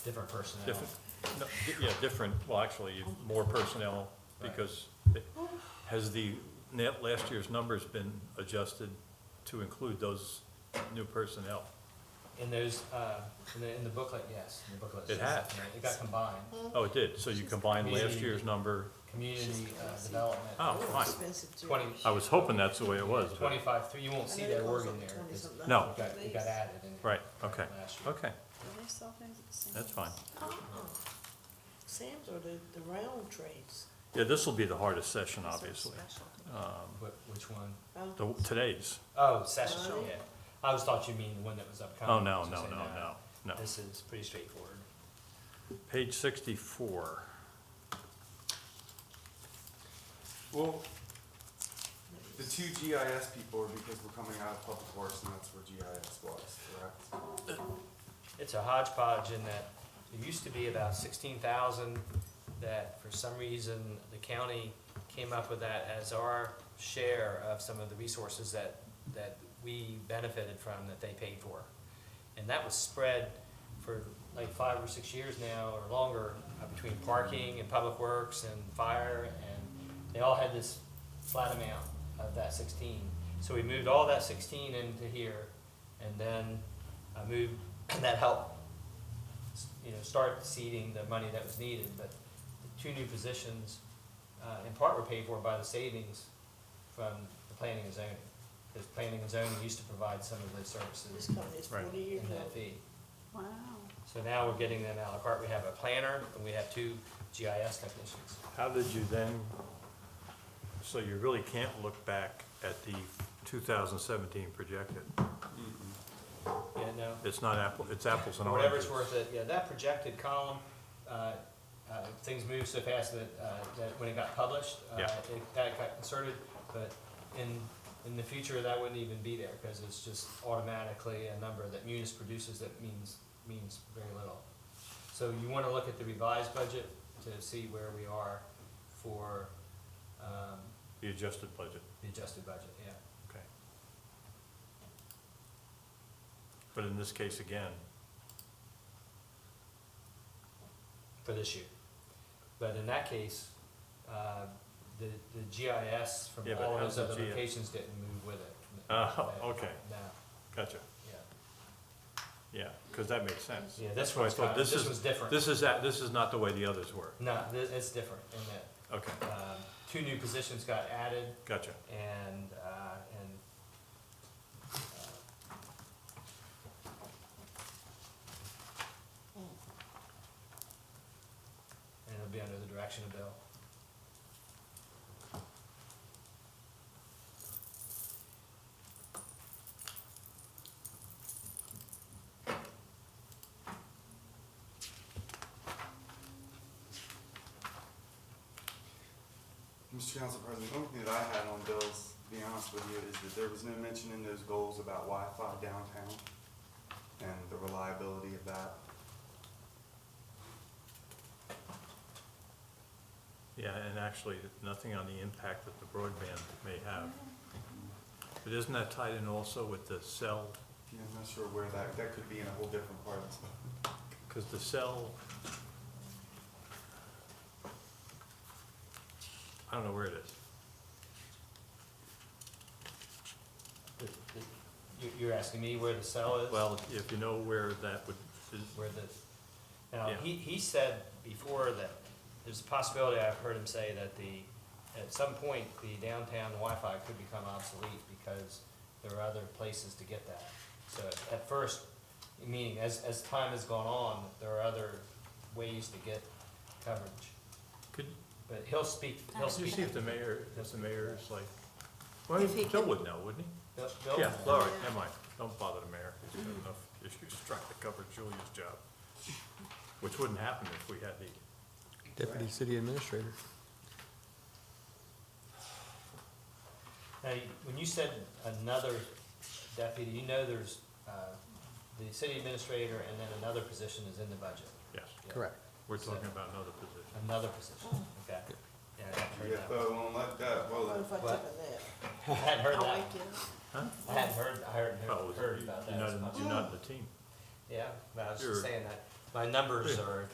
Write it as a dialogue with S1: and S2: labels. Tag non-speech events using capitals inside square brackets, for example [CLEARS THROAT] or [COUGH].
S1: Different personnel.
S2: Different, no, di- yeah, different, well, actually, more personnel, because it- has the net, last year's numbers been adjusted to include those new personnel?
S1: In those, uh, in the, in the booklet, yes, in the booklet.
S2: It
S1: says
S2: had.
S1: that, It got combined,
S2: Oh, it did, so you combined last year's number,
S1: community uh, development.
S2: oh, fine.
S3: Expensive too.
S1: Twenty,
S2: I was hoping that's the way it was, but,
S1: twenty-five, three, you won't see
S3: I know
S1: that
S3: it
S1: word
S3: goes
S1: in
S3: up
S1: there.
S3: 20
S1: It's- oh,
S3: something.
S2: No.
S1: It got, it got added in.
S2: right, okay,
S1: last year.
S2: okay,
S4: they sell things at the same?
S2: that's fine.
S3: Uh-uh. Sam's are the, the round trays.
S2: Yeah, this will be the hardest session, obviously,
S1: Wh- Which one?
S3: Oh,
S2: the, today's,
S1: Oh, session,
S3: Oh.
S1: yeah. I always thought you mean the one that was upcoming.
S2: oh, no,
S1: so
S2: no,
S1: say
S2: no, no, no.
S1: This is pretty straightforward.
S2: Page sixty-four,
S5: Well, the two GIS people are because we're coming out of public works and that's where GIS was, correct?
S1: It's a hodgepodge in that there used to be about sixteen thousand that for some reason the county came up with that as our share of some of the resources that, that we benefited from that they paid for. And that was spread for like five or six years now or longer uh, between parking and public works and fire and they all had this flat amount of that sixteen. So we moved all that sixteen into here and then I moved, [CLEARS THROAT] and that helped, s- you know, start seeding the money that was needed, but the two new positions, uh, in part were paid for by the savings from the planning and zoning. Because planning and zoning used to provide some of those
S3: This
S1: services
S3: company's
S2: Right.
S3: forty years
S1: in that
S3: old.
S1: fee.
S4: Wow.
S1: So now we're getting them out of carte, we have a planner and we have two GIS technicians.
S2: How did you then, so you really can't look back at the 2017 projected?
S1: Yeah, no,
S2: It's not apple, it's apples and
S1: For
S2: oranges.
S1: whatever it's worth, it, yeah, that projected column, uh, uh, things moved so fast that, uh, that when it got published, uh,
S2: Yeah.
S1: it, that got inserted, but in, in the future, that wouldn't even be there, because it's just automatically a number that Munis produces that means, means very little. So you wanna look at the revised budget to see where we are for, um,
S2: The adjusted budget,
S1: the adjusted budget, yeah.
S2: okay. But in this case, again,
S1: for this year. But in that case, uh, the, the GIS from
S2: Yeah, but
S1: all
S2: how's
S1: those
S2: the
S1: other
S2: G-
S1: locations didn't move with it.
S2: Oh,
S1: No,
S2: okay.
S1: No,
S2: gotcha,
S1: yeah,
S2: yeah, because that makes sense.
S1: yeah, this
S2: That's why I
S1: one's
S2: thought
S1: kind
S2: this
S1: this
S2: is-
S1: was different.
S2: This is, that. this is not the way the others were,
S1: No, this, it's different in
S2: okay,
S1: that, um, two new positions got added
S2: gotcha,
S1: and, uh, and, uh, and it'll be under the direction of Bill.
S5: Mr. Council President, the only thing that I had on Bill's, to be honest with you, is that there was no mention in those goals about Wi-Fi downtown and the reliability of that.
S2: yeah, and actually, nothing on the impact that the broadband may have. But isn't that tied in also with the cell
S5: Yeah, I'm not sure where that, that could be in a whole different part of this.
S2: Because the cell, I don't know where it is.
S1: The- the- you- You're asking me where the cell is?
S2: Well, if you know where that would, is-
S1: Where the, now,
S2: Yeah.
S1: he, he said before that, there's a possibility, I've heard him say that the, at some point, the downtown Wi-Fi could become obsolete because there are other places to get that. So at first, meaning as, as time has gone on, there are other ways to get coverage.
S2: could,
S1: But he'll speak, he'll
S2: could you
S1: speak.
S2: see if the mayor, if the mayor is like, well,
S3: If he
S2: Bill
S3: can-
S2: would know, wouldn't he?
S1: Bill- Bill-
S2: Yeah, all right, never mind, don't bother the mayor, he's got enough issues trying to cover Julia's job, which wouldn't happen if we had the,
S6: Deputy City Administrator.
S1: Now, you- when you said another deputy, you know there's, uh, the city administrator and then another position is in the budget.
S2: yes,
S1: Yeah.
S2: we're talking about another position.
S1: Another position, okay. Yeah, I hadn't heard
S5: Yeah,
S1: that.
S5: but I won't let that, well,
S3: What
S5: that-
S3: if I took a
S1: What?
S3: nap?
S1: I hadn't heard
S3: I
S1: that.
S3: like it.
S2: Huh? Oh,
S1: I hadn't heard, I hadn't
S2: Well,
S1: heard, heard about that
S2: you're
S1: as
S2: not-
S1: much.
S2: You're not in the team.
S1: Yeah, but I was
S2: You're-
S1: just saying that, my numbers are